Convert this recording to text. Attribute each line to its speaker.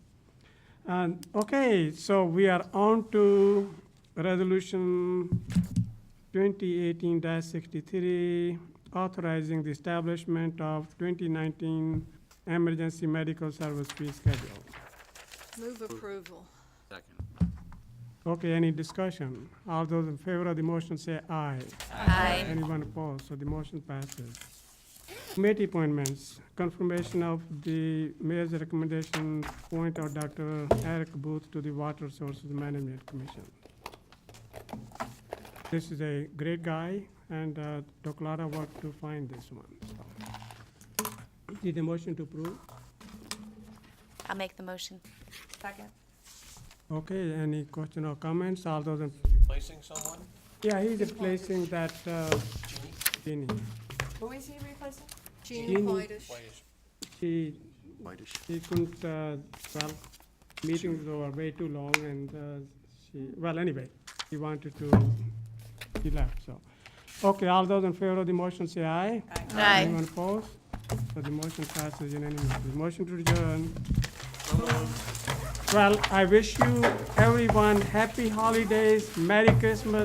Speaker 1: And, okay, so we are on to resolution twenty eighteen sixty-three, authorizing the establishment of twenty nineteen emergency medical service fee schedule.
Speaker 2: Move approval.
Speaker 3: Second.
Speaker 1: Okay, any discussion? All those in favor of the motion say aye.
Speaker 2: Aye.
Speaker 1: Anyone opposed? So the motion passes. Committee appointments, confirmation of the mayor's recommendation, point out Dr. Eric Booth to the Water Sources Management Commission. This is a great guy, and uh, Dr. Lara worked to find this one. so. Need a motion to approve?
Speaker 4: I'll make the motion. Second.
Speaker 1: Okay, any question or comments? All those in,
Speaker 5: Replacing someone?
Speaker 1: yeah, he's replacing that, uh,
Speaker 5: Jeannie?
Speaker 1: Ginny.
Speaker 4: Who is he replacing?
Speaker 2: Jean
Speaker 1: Jean.
Speaker 2: Whitish.
Speaker 5: Why is-
Speaker 1: She
Speaker 3: Whitish.
Speaker 1: She couldn't, uh, well, meetings were way too long, and uh, she, well, anyway, she wanted to, she left, so. Okay, all those in favor of the motion, say aye.
Speaker 2: Aye.
Speaker 1: Anyone opposed? So the motion passes unanimously. Motion to adjourn. Well, I wish you, everyone, happy holidays, Merry Christmas.